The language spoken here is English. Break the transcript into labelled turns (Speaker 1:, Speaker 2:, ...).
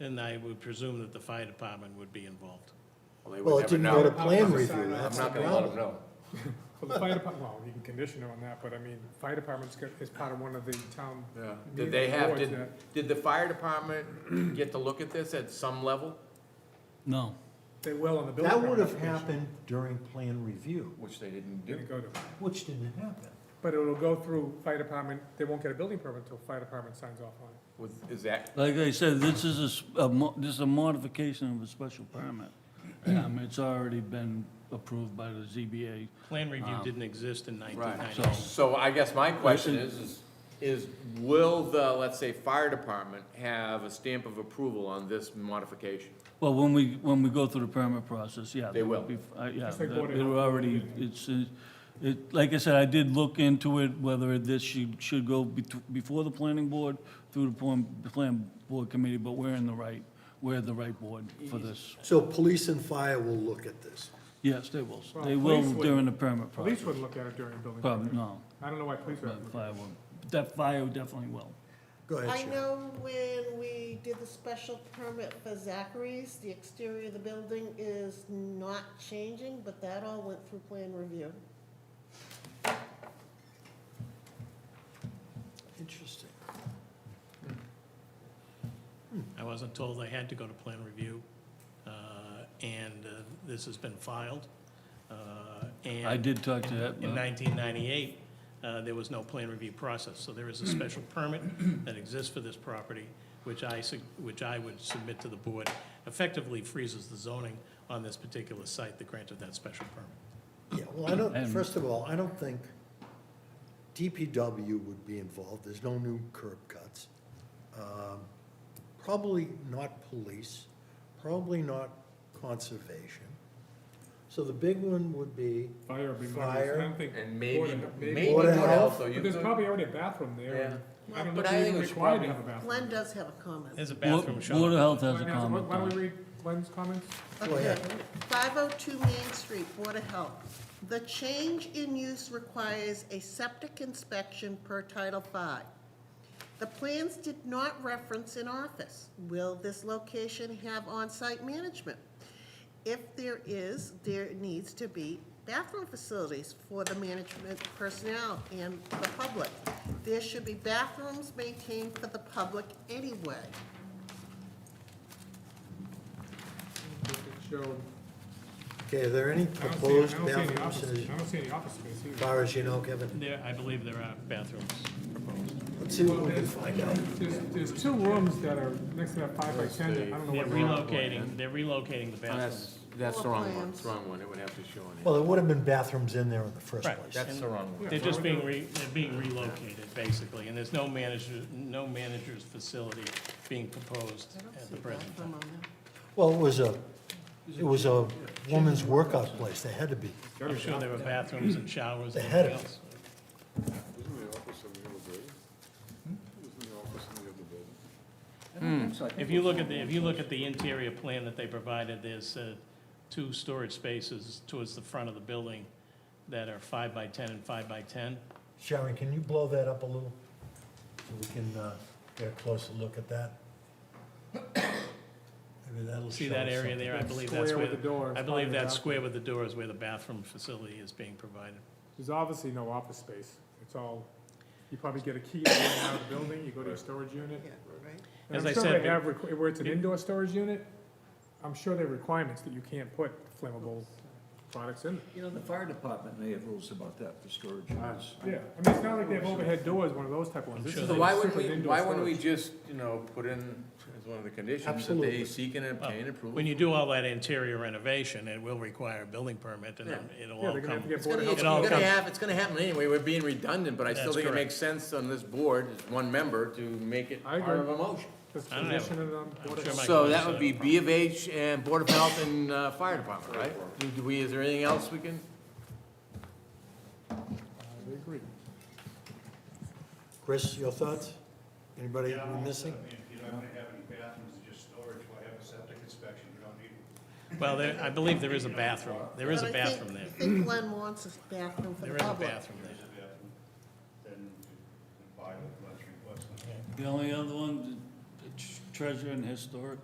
Speaker 1: And I would presume that the fire department would be involved.
Speaker 2: Well, they
Speaker 3: Well,
Speaker 2: would
Speaker 3: it
Speaker 2: never
Speaker 3: didn't go to
Speaker 2: know.
Speaker 3: plan
Speaker 4: I'm
Speaker 3: review,
Speaker 2: I'm
Speaker 3: that's the
Speaker 2: not gonna let them
Speaker 3: problem.
Speaker 2: know.
Speaker 4: Well, the fire department, well, you can condition it on that, but I mean, fire department's got, is part of one of the town.
Speaker 2: Yeah. Did they have,
Speaker 4: boards
Speaker 2: did,
Speaker 4: that-
Speaker 2: did the fire department get to look at this at some level?
Speaker 5: No.
Speaker 4: They will on the building.
Speaker 3: That would have
Speaker 4: permit application.
Speaker 3: happened during plan review,
Speaker 2: Which they didn't
Speaker 4: Didn't go to,
Speaker 3: which didn't happen.
Speaker 4: but it'll go through fire department, they won't get a building permit until fire department signs off on it.
Speaker 2: With, is that,
Speaker 5: Like I said, this is a s- a, mo- this is a modification of a special permit.
Speaker 2: Mm-hmm.
Speaker 5: Um, it's already been approved by the ZBA.
Speaker 1: Plan review didn't exist in
Speaker 2: right,
Speaker 1: 1990.
Speaker 2: so, so I guess my question is, is, is will the, let's say, fire department have a stamp of approval on this modification?
Speaker 5: Well, when we, when we go through the permit process, yeah.
Speaker 2: They will.
Speaker 5: that would be- uh, Yeah,
Speaker 4: Just like what it-
Speaker 5: it already, it's, uh, it, like I said, I did look into it, whether this should, should go betw- before the planning board, through the plan, the plan board committee, but we're in the right, we're the right board for this.
Speaker 3: So police and fire will look at this.
Speaker 5: Yes, they will,
Speaker 4: Well,
Speaker 5: they will
Speaker 4: police would-
Speaker 5: during the permit
Speaker 4: Police
Speaker 5: process.
Speaker 4: wouldn't look at it during a building
Speaker 5: Probably,
Speaker 4: permit.
Speaker 5: no,
Speaker 4: I don't know why police would.
Speaker 5: but fire will, that fire definitely will.
Speaker 3: Go ahead,
Speaker 6: I
Speaker 3: Sharon.
Speaker 6: know when we did the special permit for Zachary's, the exterior of the building is not changing, but that all went through plan review.
Speaker 3: Interesting.
Speaker 1: I wasn't told they had to go to plan review, uh, and uh, this has been filed. uh, and-
Speaker 5: I did talk to uh, that.
Speaker 1: In 1998, uh, there was no plan review process, so there is a special permit that exists for this property, which I, su- which I would submit to the board, effectively freezes the zoning on this particular site that granted that special permit.
Speaker 3: Yeah, well, I don't,
Speaker 5: And-
Speaker 3: first of all, I don't think DPW would be involved, there's no new curb cuts. Um, Probably not police, probably not conservation. So the big one would be,
Speaker 4: Fire would be. my-
Speaker 3: Fire.
Speaker 4: I don't think.
Speaker 2: And maybe,
Speaker 4: Board of-
Speaker 2: maybe
Speaker 3: Board
Speaker 2: what
Speaker 3: of
Speaker 2: else,
Speaker 3: Health.
Speaker 2: so you
Speaker 4: But there's
Speaker 2: could-
Speaker 4: probably already a bathroom there, and
Speaker 2: Yeah.
Speaker 4: I don't know
Speaker 2: But
Speaker 4: if
Speaker 2: I
Speaker 4: you're
Speaker 2: think
Speaker 4: even
Speaker 2: it's
Speaker 4: required to
Speaker 2: probably-
Speaker 4: have a bathroom.
Speaker 6: Glenn does have a comment.
Speaker 1: There's a
Speaker 5: Wa-
Speaker 1: bathroom
Speaker 5: Water
Speaker 1: shop.
Speaker 5: Health has a
Speaker 4: Why not?
Speaker 5: comment.
Speaker 4: Why
Speaker 5: on
Speaker 4: don't
Speaker 5: it.
Speaker 4: we read Glenn's comments?
Speaker 3: Go
Speaker 6: Okay,
Speaker 3: ahead.
Speaker 6: 502 Main Street, Board of Health. The change in use requires a septic inspection per Title V. The plans did not reference an office. Will this location have on-site management? If there is, there needs to be bathroom facilities for the management personnel and the public. There should be bathrooms maintained for the public anyway.
Speaker 4: It showed-
Speaker 3: okay, are there any
Speaker 4: I don't see- I
Speaker 3: proposed
Speaker 4: don't see any
Speaker 3: bathrooms
Speaker 4: office-
Speaker 3: as
Speaker 4: I don't see any office space either.
Speaker 3: far as you know, Kevin?
Speaker 1: There, I believe there are bathrooms proposed.
Speaker 3: Let's see what
Speaker 4: Well,
Speaker 3: we can
Speaker 4: there's-
Speaker 3: find out.
Speaker 4: There's, there's two rooms that are next to that five by ten, that I don't know
Speaker 1: They're
Speaker 4: what. they are.
Speaker 1: relocating, they're relocating the bathrooms.
Speaker 2: That's, that's the wrong one,
Speaker 6: Plans.
Speaker 2: it's the wrong one, it would have to show on
Speaker 3: Well,
Speaker 2: it.
Speaker 3: there would have been bathrooms in there in the first
Speaker 1: Right.
Speaker 3: place.
Speaker 2: That's the wrong one.
Speaker 1: They're just being re, they're being relocated, basically, and there's no manager, no manager's facility being proposed
Speaker 6: I don't
Speaker 1: at
Speaker 6: see
Speaker 1: the
Speaker 6: a
Speaker 1: present time.
Speaker 6: bathroom on there.
Speaker 3: Well, it was a, it was a woman's workout place, they had to be.
Speaker 1: I'm sure there were bathrooms and showers and
Speaker 3: They had
Speaker 1: everything
Speaker 3: it.
Speaker 1: else.
Speaker 7: Isn't the office in the other building? Isn't the office in the other building?
Speaker 1: If you look at the, if you look at the interior plan that they provided, there's uh, two storage spaces towards the front of the building that are five by 10 and five by 10.
Speaker 3: Sharon, can you blow that up a little? So we can uh, get a closer look at that? Maybe that'll
Speaker 1: See
Speaker 3: show
Speaker 1: that
Speaker 3: us
Speaker 1: area there? I
Speaker 4: That
Speaker 1: believe
Speaker 4: square
Speaker 1: that's where,
Speaker 4: with the door is
Speaker 1: I believe
Speaker 4: probably
Speaker 1: that
Speaker 4: the
Speaker 1: square with the door is where the bathroom facility is being provided.
Speaker 4: There's obviously no office space, it's all, you probably get a key to get out of the building, you go to a storage unit.
Speaker 6: Yeah, right?
Speaker 4: And
Speaker 1: As
Speaker 4: I'm
Speaker 1: I
Speaker 4: sure
Speaker 1: said,
Speaker 4: they have requ- Where it's an indoor storage unit, I'm sure there are requirements that you can't put flammable products in.
Speaker 8: You know, the fire department, they have rules about that for storage units.
Speaker 4: Yeah, I mean, it's not like they have overhead doors, one of those type of ones. This
Speaker 1: sure
Speaker 4: is
Speaker 1: they
Speaker 2: So
Speaker 4: a
Speaker 2: why wouldn't
Speaker 4: strictly
Speaker 2: we,
Speaker 4: indoor
Speaker 2: why wouldn't we
Speaker 4: storage.
Speaker 2: just, you know, put in as one of the conditions that
Speaker 3: Absolutely.
Speaker 2: they seek and obtain approval?
Speaker 1: When you do all that interior renovation, it will require a building permit, and then it'll
Speaker 4: Yeah,
Speaker 1: all
Speaker 4: they're gonna
Speaker 1: come.
Speaker 4: have to get
Speaker 2: It's gonna,
Speaker 4: board
Speaker 2: it's
Speaker 1: It all
Speaker 2: gonna
Speaker 1: comes-
Speaker 2: have, it's gonna happen anyway, we're being redundant, but I still
Speaker 1: That's
Speaker 2: think it
Speaker 1: correct.
Speaker 2: makes sense on this board, as one member, to make it
Speaker 4: I
Speaker 2: part of
Speaker 4: agree.
Speaker 2: a motion.
Speaker 4: Just
Speaker 1: I don't have-
Speaker 4: position it on
Speaker 1: I'm
Speaker 4: board
Speaker 1: sure
Speaker 4: of-
Speaker 1: my
Speaker 2: So
Speaker 1: colleagues
Speaker 2: that
Speaker 1: said
Speaker 2: would
Speaker 1: it
Speaker 2: be
Speaker 1: wrong.
Speaker 2: B of H and Board of Health and, uh, Fire Department, right? Do- Do we, is there anything else we can?
Speaker 4: I agree.
Speaker 3: Chris, your thoughts? Anybody we're missing?
Speaker 9: If you don't have any bathrooms, it's just storage, why have a septic inspection, you don't need one.
Speaker 1: Well, there, I believe there is a bathroom. There is a
Speaker 6: But I think-
Speaker 1: bathroom there.
Speaker 6: I think Glenn wants a bathroom for the
Speaker 1: There is a
Speaker 6: public.
Speaker 1: bathroom
Speaker 9: There's
Speaker 1: there.
Speaker 9: a bathroom, then you buy it, let's request it.
Speaker 5: The only other one, the treasure and historic